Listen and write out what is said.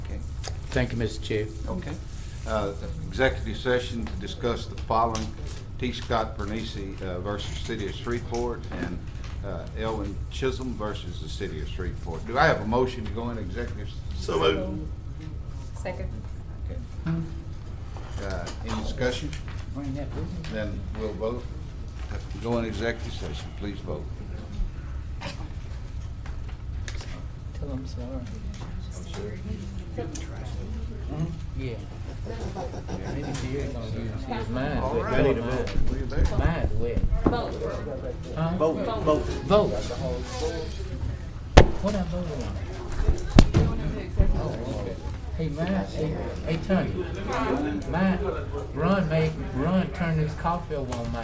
Thank you, Mr. Chair. Okay. Uh, Executive session to discuss the following, T. Scott Bernisi uh, versus City of Shreveport and uh, Elwin Chisholm versus the City of Shreveport. Do I have a motion to go into executive? s- So moved. Second. Okay. Uh, Any discussion? Bring that with me. Then we'll vote. Go into executive session, please vote. Tell them sorry. Yeah. Maybe Jerry's gonna use his mind. All but right. your mind- We're there. Mine's wet. Huh? Vote, vote. Vote. What I voted on? Oh, okay. Hey, mine, hey, hey, Tony. Mine, Ron made, Ron turned his coffee over on my